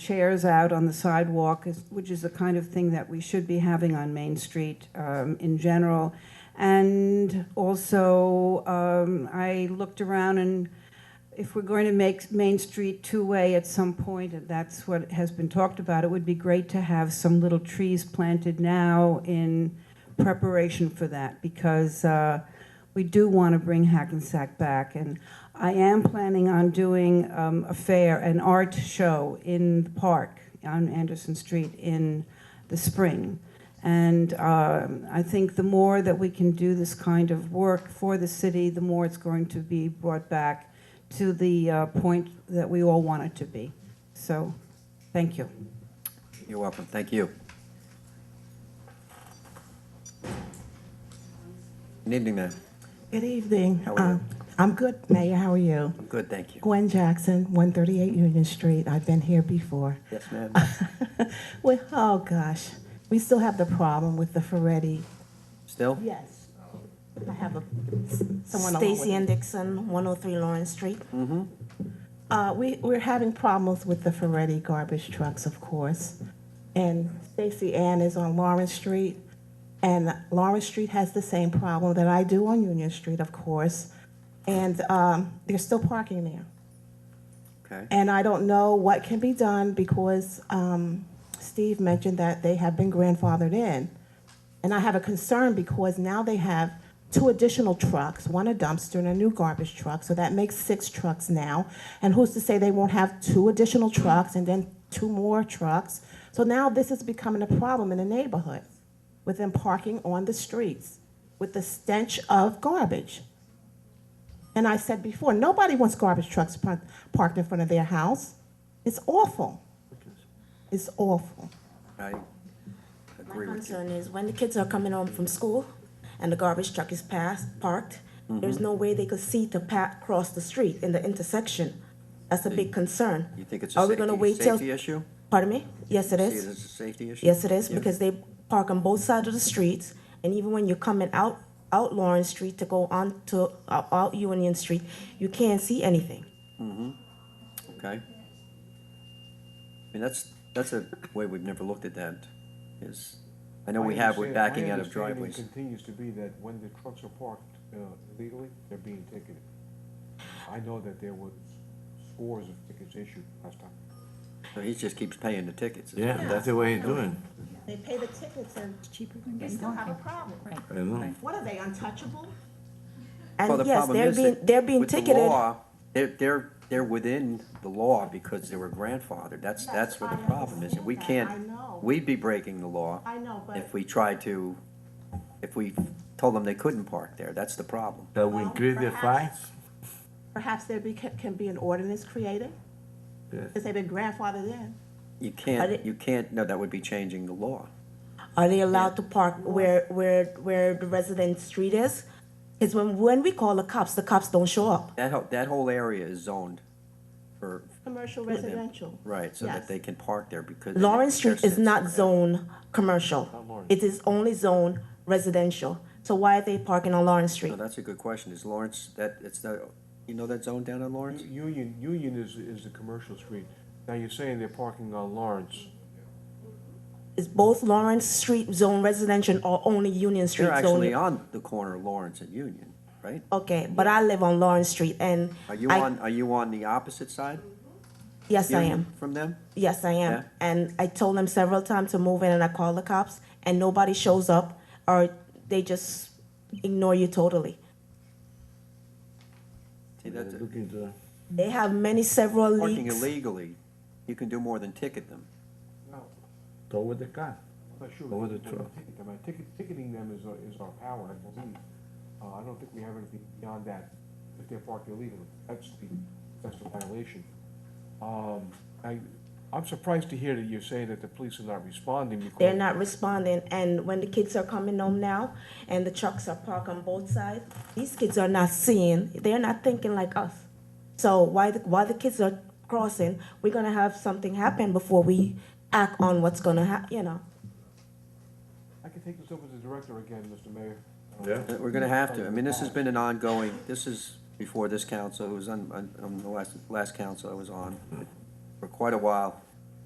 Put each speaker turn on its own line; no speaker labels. chairs out on the sidewalk, is- which is the kind of thing that we should be having on Main Street um, in general. And also, um, I looked around and if we're going to make Main Street two-way at some point, and that's what has been talked about, it would be great to have some little trees planted now in preparation for that, because uh, we do want to bring Hackensack back. And I am planning on doing um, a fair, an art show in the park on Anderson Street in the spring. And um, I think the more that we can do this kind of work for the city, the more it's going to be brought back to the uh, point that we all want it to be. So, thank you.
You're welcome, thank you. Good evening, ma'am.
Good evening.
How are you?
Uh, I'm good, Mayor. How are you?
I'm good, thank you.
Gwen Jackson, 138 Union Street. I've been here before.
Yes, ma'am.
Well, oh gosh, we still have the problem with the Ferretti.
Still?
Yes. I have a, someone along with
Stacy
me.
and Dixon, 103 Lawrence Street.
Uh, we, we're having problems with the Ferretti garbage trucks, of course. And Stacy Ann is on Lawrence Street. And Lawrence Street has the same problem that I do on Union Street, of course. And, um, they're still parking there.
Okay,
And I don't know what can be done because um, Steve mentioned that they have been grandfathered in. And I have a concern because now they have two additional trucks, one a dumpster and a new garbage truck, so that makes six trucks now. And who's to say they won't have two additional trucks and then two more trucks? So now this is becoming a problem in the neighborhood with them parking on the streets with the stench of garbage. And I said before, nobody wants garbage trucks par- parked in front of their house. It's awful. It's awful.
I
My
agree with you.
concern is when the kids are coming home from school and the garbage truck is passed, parked,
Mm-hmm.
there's no way they could see to pa- cross the street in the intersection. That's a big concern.
You think it's
Are
a
we gonna wait
safety,
till-
safety issue?
Pardon me? Yes, it
See it
is.
as a safety issue?
Yes, it is,
Yeah.
because they park on both sides of the streets, and even when you're coming out, out Lawrence Street to go on to, out out Union Street, you can't see anything.
Mm-hmm. Okay. I mean, that's, that's a way we've never looked at that, is, I know we have, we're
My
backing out of
understand- my
driveways.
understanding continues to be that when the trucks are parked uh, illegally, they're being ticketed. I know that there was scores of tickets issued last time.
So he just keeps paying the tickets. It's-
Yeah, that's the way you do it.
They pay the tickets and
cheaper than
they
getting
still have a
coffee.
problem.
I know.
What are they, untouchable?
Well, the
And yes,
problem
they're
is that
being, they're being
with the
ticketed.
law, They're, they're, they're within the law because they were grandfathered. That's,
Yes,
that's what the
I
problem is. And we
understand
can't,
that. I know.
we'd be breaking the law
I know, but.
if we tried to, if we told them they couldn't park there. That's the problem.
That we increase the
Perhaps-
fines?
Perhaps there be, can can be an ordinance created,
Yes.
because they've been grandfathered in.
You
But
can't,
it-
you can't, no, that would be changing the law.
Are they allowed to park where, where, where the resident street is? Because when, when we call the cops, the cops don't show up.
That, ho- that whole area is zoned for,
Commercial residential.
right, so that
Yes.
they can park there because.
Lawrence
they're
Street is not
citizens.
zone commercial. It is only zone residential. So why are they parking on Lawrence
No,
Street?
that's a good question. Is Lawrence, that, it's not, you know that zone down on Lawrence?
Union, Union is, is the commercial street. Now, you're saying they're parking on Lawrence.
Is both Lawrence Street zone residential or only Union Street
They're
zone?
actually on the corner of Lawrence and Union, right?
Okay, but I live on Lawrence Street and
Are you
I-
on, are you on the opposite side?
Yes, I
Union,
am.
From them?
Yes, I am.
Yeah.
And I told them several times to move in and I call the cops and nobody shows up or they just ignore you totally.
See, that's,
Look into that.
They have many several
parking
leaks.
illegally, you can do more than ticket them.
No,
Go with the car.
I'm not sure.
Go with the
We're gonna
truck.
ticket them. Uh, ticket- Ticketing them is, our- is our power, I believe. Uh, I don't think we have anything beyond that, if they're parked illegally. That's the, that's the violation. Um, I, I'm surprised to hear that you're saying that the police are not responding because.
They're not responding. And when the kids are coming home now and the trucks are parked on both sides, these kids are not seeing, they're not thinking like us. So while, the- while the kids are crossing, we're gonna have something happen before we act on what's gonna hap, you know.
I can take this over to the director again, Mr. Mayor.
Yeah.
We're gonna have to, I mean, this has been an ongoing, this is before this council, it was on, on, on the last, last council I was on, for quite a while.